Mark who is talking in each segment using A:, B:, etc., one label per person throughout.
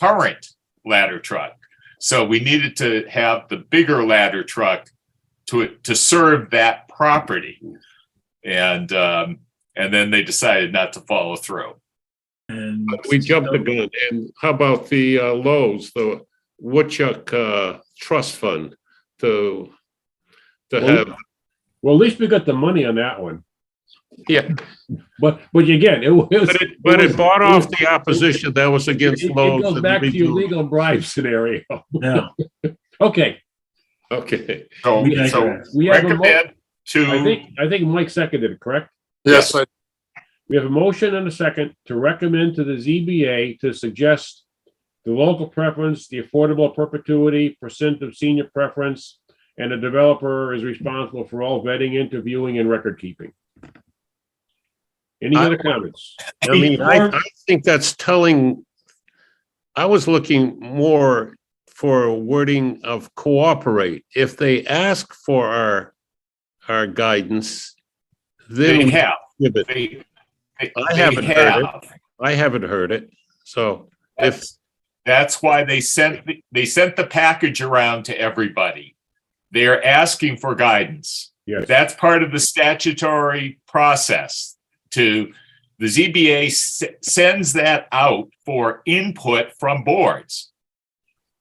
A: current ladder truck. So we needed to have the bigger ladder truck to, to serve that property. And, um, and then they decided not to follow through.
B: And
C: We jumped the gun. And how about the uh, Lowe's, the Woodchuck uh, Trust Fund to, to
D: Well,
C: have,
D: Well, at least we got the money on that one.
C: Yeah.
D: But, but again, it was.
C: but it, but it
D: was-
C: bought
D: it
C: off
D: was-
C: the opposition that was against
D: It it goes
C: Lowe's.
D: back to your
C: and
D: legal bribe scenario.
B: Yeah,
D: Okay,
C: Okay,
A: So,
B: We
A: so
B: digress.
D: we have a, mo-
A: recommend
D: I
A: to,
D: think, I think Mike seconded it, correct?
E: Yes, I-
D: We have a motion and a second to recommend to the ZBA to suggest the local preference, the affordable perpetuity, percent of senior preference, and the developer is responsible for all vetting, interviewing, and record keeping. Any
C: I-
D: other comments?
C: I mean, I, I think that's telling, I was looking more for a wording of cooperate. If they ask for our, our guidance,
A: they
C: then we
A: have,
C: give it.
A: they, they
C: I
A: they
C: haven't heard it.
A: have.
C: I haven't heard it, so if,
A: That's, that's why they sent, the- they sent the package around to everybody. They're asking for guidance.
D: Yes.
A: That's part of the statutory process to, the ZBA s- sends that out for input from boards.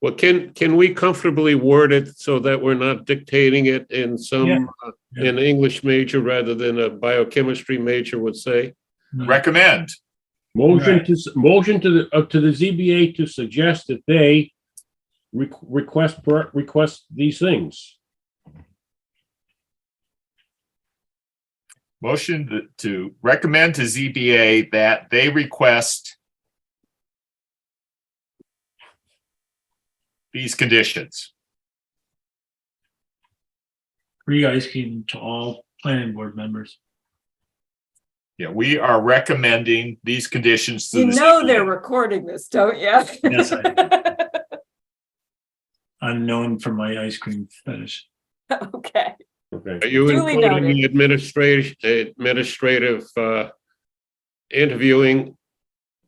C: well, can, can we comfortably word it so that we're not dictating it in
B: Yeah.
C: some, uh, an English major rather than a biochemistry major would say?
A: Recommend.
D: Motion
B: Right.
D: to, s- motion to the, uh, to the ZBA to suggest that they re- request, per- request these things.
A: Motion to- to recommend to ZBA that they request these conditions.
B: free ice cream to all planning board members.
A: Yeah, we are recommending these conditions to
F: You
A: the
F: know they're
A: ZBA.
F: recording this, don't you?
B: Yes, I- I'm known for my ice cream fetish.
F: Okay,
D: Okay.
C: Are you
F: Duly
C: including
F: noted.
C: administrative, administrative, uh, interviewing?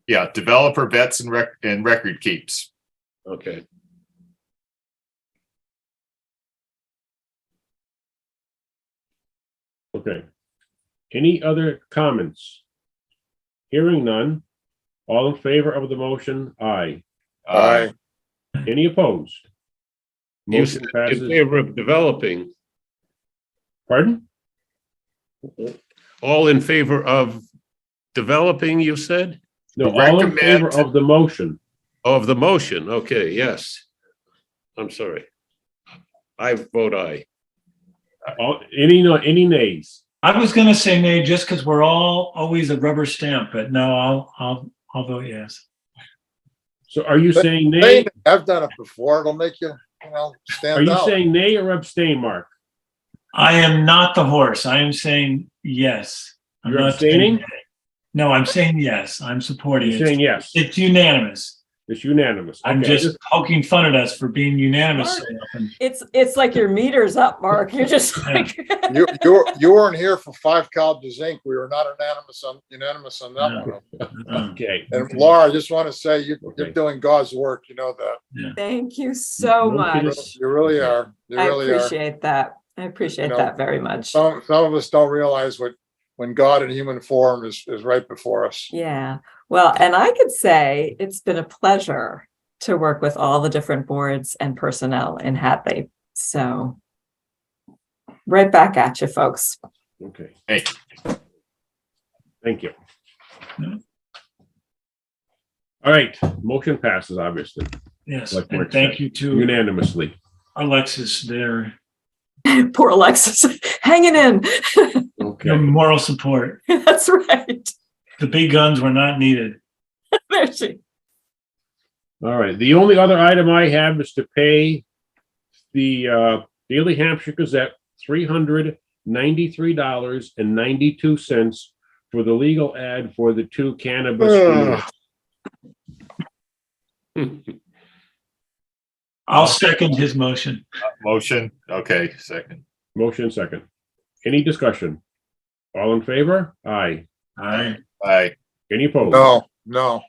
A: Yeah, developer vets and rec, and record keeps.
C: Okay,
D: Okay. Any other comments? Hearing none. All in favor of the motion, aye.
A: Uh,
D: Any opposed?
C: You
D: Motion
C: said in
D: passes.
C: favor of developing,
D: Pardon?
C: all in favor of developing, you said,
D: No, all in favor
A: Recommend-
D: of the motion.
C: of the motion? Okay, yes. I'm sorry. I vote aye.
D: All, any, no, any nays?
B: I was gonna say nay, just because we're all always a rubber stamp, but no, I'll, I'll, I'll vote yes.
D: So are you
E: But
D: saying nay?
E: I've done it before. It'll make you, you know,
D: Are
E: stand
D: you
E: out.
D: saying nay or abstain, Mark?
B: I am not the horse. I am saying yes. I'm
D: You're
B: not saying
D: abstaining?
B: nay. No, I'm saying yes. I'm supporting
D: You're
B: it.
D: saying yes.
B: It's unanimous.
D: It's unanimous.
B: I'm
D: Okay, I
B: just poking fun at us for being unanimous. so often.
F: it's, it's like your meter's up, Mark. You're just like,
E: You, you, you weren't here for Five Colleges Inc. We were not unanimous on, unanimous on that
B: No.
E: one.
B: Uh,
D: Okay.
E: And Laura, I just want to say you, you're
D: Okay.
E: doing God's work. You know that.
F: thank you so
D: No kidding.
F: much.
E: You really are. You
F: I
E: really are.
F: appreciate that. I appreciate
E: know,
F: that very much.
E: Some, some of us don't realize what, when God in human form is, is right before us.
F: Yeah, well, and I could say it's been a pleasure to work with all the different boards and personnel in Hadley. So right back at you, folks.
D: Okay.
A: Hey.
D: Thank you.
B: No.
D: All right, motion passes obviously
B: Yes,
D: Like
B: and
D: Mark
B: thank
D: said,
B: you to
D: unanimously.
B: Alexis, their
F: Poor Alexis, hanging in.
B: their
D: Okay.
B: moral support.
F: That's right.
B: The big guns were not needed.
F: There she,
D: All right, the only other item I have is to pay the uh, Daily Hampshire Gazette three hundred ninety-three dollars and ninety-two cents for the legal ad for the two cannabis.
C: Ugh.
B: I'll second his motion.
A: Motion, okay, second.
D: Motion second. Any discussion? All in favor? Aye.
B: All right.
A: Aye.
D: Any opposed?
E: No, no.